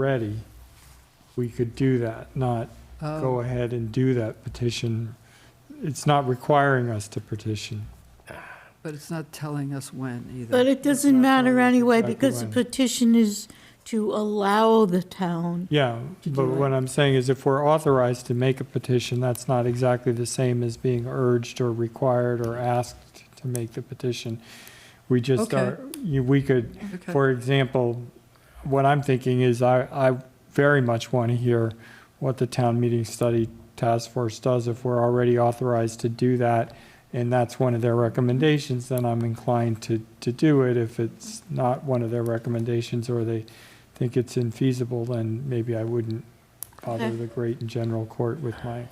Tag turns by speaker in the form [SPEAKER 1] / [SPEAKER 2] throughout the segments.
[SPEAKER 1] ready, we could do that, not
[SPEAKER 2] Oh.
[SPEAKER 1] go ahead and do that petition. It's not requiring us to petition.
[SPEAKER 2] But it's not telling us when either.
[SPEAKER 3] But it doesn't matter anyway,
[SPEAKER 1] exactly
[SPEAKER 3] because the
[SPEAKER 1] when.
[SPEAKER 3] petition is to allow the town.
[SPEAKER 1] Yeah, but what I'm saying is if we're authorized to make a petition, that's not exactly the same as being urged or required or asked to make the petition. We just
[SPEAKER 2] Okay.
[SPEAKER 1] are, you- we could,
[SPEAKER 2] Okay.
[SPEAKER 1] For example, what I'm thinking is I, I very much want to hear what the town meeting study task force does if we're already authorized to do that. And that's one of their recommendations, then I'm inclined to, to do it. If it's not one of their recommendations or they think it's infeasible, then maybe I wouldn't bother
[SPEAKER 3] Okay.
[SPEAKER 1] the great and general court with my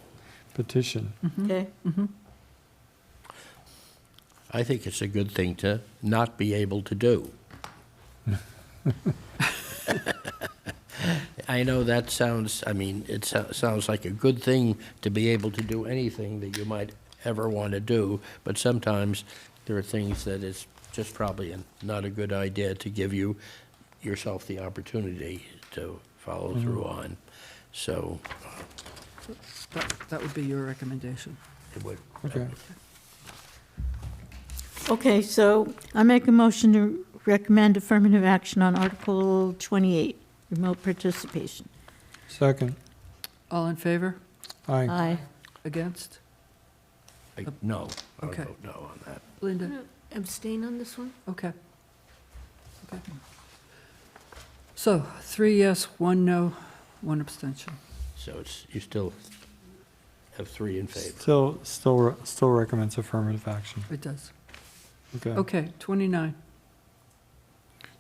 [SPEAKER 1] petition.
[SPEAKER 2] Mm-hmm.
[SPEAKER 3] Okay.
[SPEAKER 4] I think it's a good thing to not be able to do. I know that sounds, I mean, it so- sounds like a good thing to be able to do anything that you might ever want to do, but sometimes there are things that it's just probably not a good idea to give you, yourself the opportunity to follow through on. So
[SPEAKER 2] That, that would be your recommendation.
[SPEAKER 4] it would,
[SPEAKER 1] Okay.
[SPEAKER 3] Okay, so I make a motion to recommend affirmative action on Article 28, remote participation.
[SPEAKER 1] Second,
[SPEAKER 2] All in favor?
[SPEAKER 1] aye.
[SPEAKER 3] Aye.
[SPEAKER 2] Against?
[SPEAKER 4] I- no, I would
[SPEAKER 2] Okay.
[SPEAKER 4] vote no on that.
[SPEAKER 2] Linda?
[SPEAKER 5] Abstain on this one?
[SPEAKER 3] Mm-hmm.
[SPEAKER 2] Okay. Okay. So three yes, one no, one abstention.
[SPEAKER 4] So it's, you still have three in favor.
[SPEAKER 1] Still, still, re- still recommends affirmative action.
[SPEAKER 2] It does.
[SPEAKER 1] Okay.
[SPEAKER 2] Okay, 29.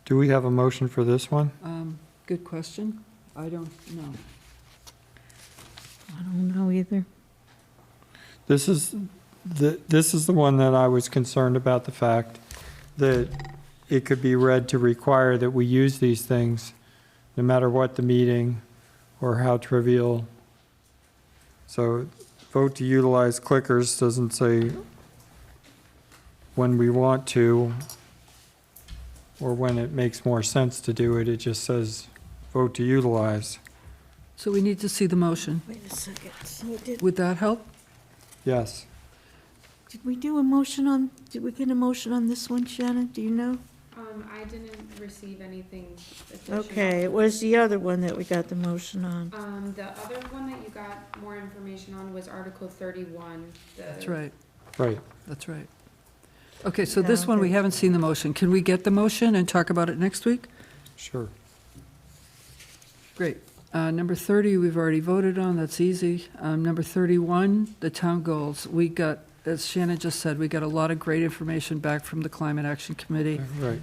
[SPEAKER 1] Do we have a motion for this one?
[SPEAKER 2] Um, Good question. I don't know.
[SPEAKER 3] I don't know either.
[SPEAKER 1] This is, the this is the one that I was concerned about, the fact that it could be read to require that we use these things, no matter what the meeting or how trivial. So vote to utilize clickers doesn't say when we want to or when it makes more sense to do it. It just says vote to utilize.
[SPEAKER 2] So we need to see the motion.
[SPEAKER 3] Wait a second. So did,
[SPEAKER 2] Would that help?
[SPEAKER 1] Yes.
[SPEAKER 3] did we do a motion on, did we get a motion on this one, Shannon? Do you know?
[SPEAKER 5] Um, I didn't receive anything official.
[SPEAKER 3] Okay, it was the other one that we got the motion on.
[SPEAKER 5] Um, the other one that you got more information on was Article thirty-one, the.
[SPEAKER 3] Uh,
[SPEAKER 2] That's right,
[SPEAKER 1] Right.
[SPEAKER 2] that's right. Okay, so this
[SPEAKER 3] Yeah,
[SPEAKER 2] one, we
[SPEAKER 3] okay.
[SPEAKER 2] haven't seen the motion. Can we get the motion and talk about it next week?
[SPEAKER 1] Sure.
[SPEAKER 2] Great. Uh, Number 30, we've already voted on, that's easy. Um, Number 31, the town goals. We got, as Shannon just said, we got a lot of great information back from the Climate Action Committee.
[SPEAKER 1] Right.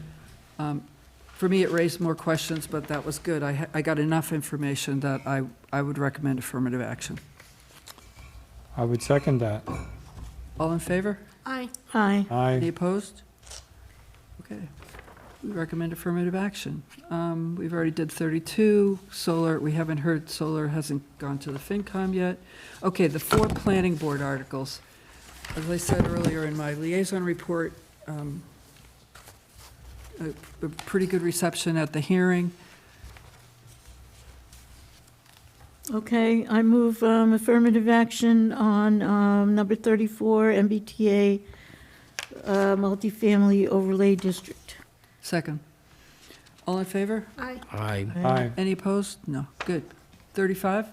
[SPEAKER 2] For me, it raised more questions, but that was good. I ha- I got enough information that I I would recommend affirmative action.
[SPEAKER 1] I would second that.
[SPEAKER 2] All in favor?
[SPEAKER 3] Aye. Aye.
[SPEAKER 1] Aye.
[SPEAKER 2] Any opposed? Okay. We recommend affirmative action. Um, We've already did 32. Solar, we haven't heard, solar hasn't gone to the FinCom yet. Okay, the four planning board articles. As I said earlier in my liaison report, um, a a pretty good reception at the hearing.
[SPEAKER 3] Okay, I move um, affirmative action on um, number 34, MBTA uh, multifamily overlay district.
[SPEAKER 2] Second. All in favor?
[SPEAKER 4] I
[SPEAKER 1] Aye.
[SPEAKER 2] Any opposed? No. Good. 35?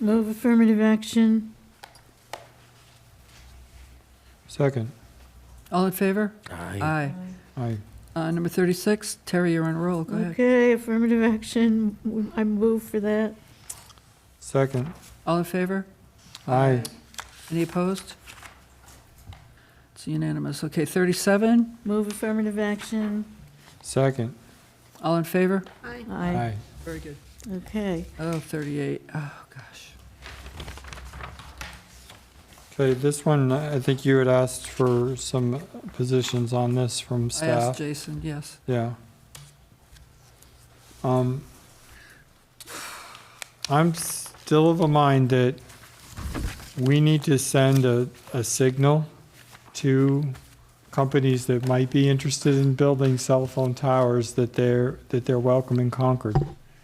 [SPEAKER 3] Move affirmative action.
[SPEAKER 1] Second.
[SPEAKER 2] All in favor?
[SPEAKER 4] Aye.
[SPEAKER 2] Aye.
[SPEAKER 1] Aye.
[SPEAKER 2] Uh, Number 36, Terry, you're on a roll. Go ahead.
[SPEAKER 3] Okay, affirmative action, I move for that.
[SPEAKER 1] Second.
[SPEAKER 2] All in favor?
[SPEAKER 1] Aye.
[SPEAKER 2] Any opposed? It's unanimous. Okay, 37,
[SPEAKER 3] Move affirmative action.
[SPEAKER 1] Second.
[SPEAKER 2] all in favor?
[SPEAKER 3] Aye.
[SPEAKER 1] Aye.
[SPEAKER 2] Very good.
[SPEAKER 3] Okay.
[SPEAKER 2] Oh, 38, oh, gosh.
[SPEAKER 1] Okay, this one, I think you had asked for some positions on this from
[SPEAKER 2] I asked
[SPEAKER 1] staff.
[SPEAKER 2] Jason, yes.
[SPEAKER 1] Yeah. Um, I'm still of a mind that we need to send a, a signal to companies that might be interested in building cell phone towers that they're, that they're welcome in Concord.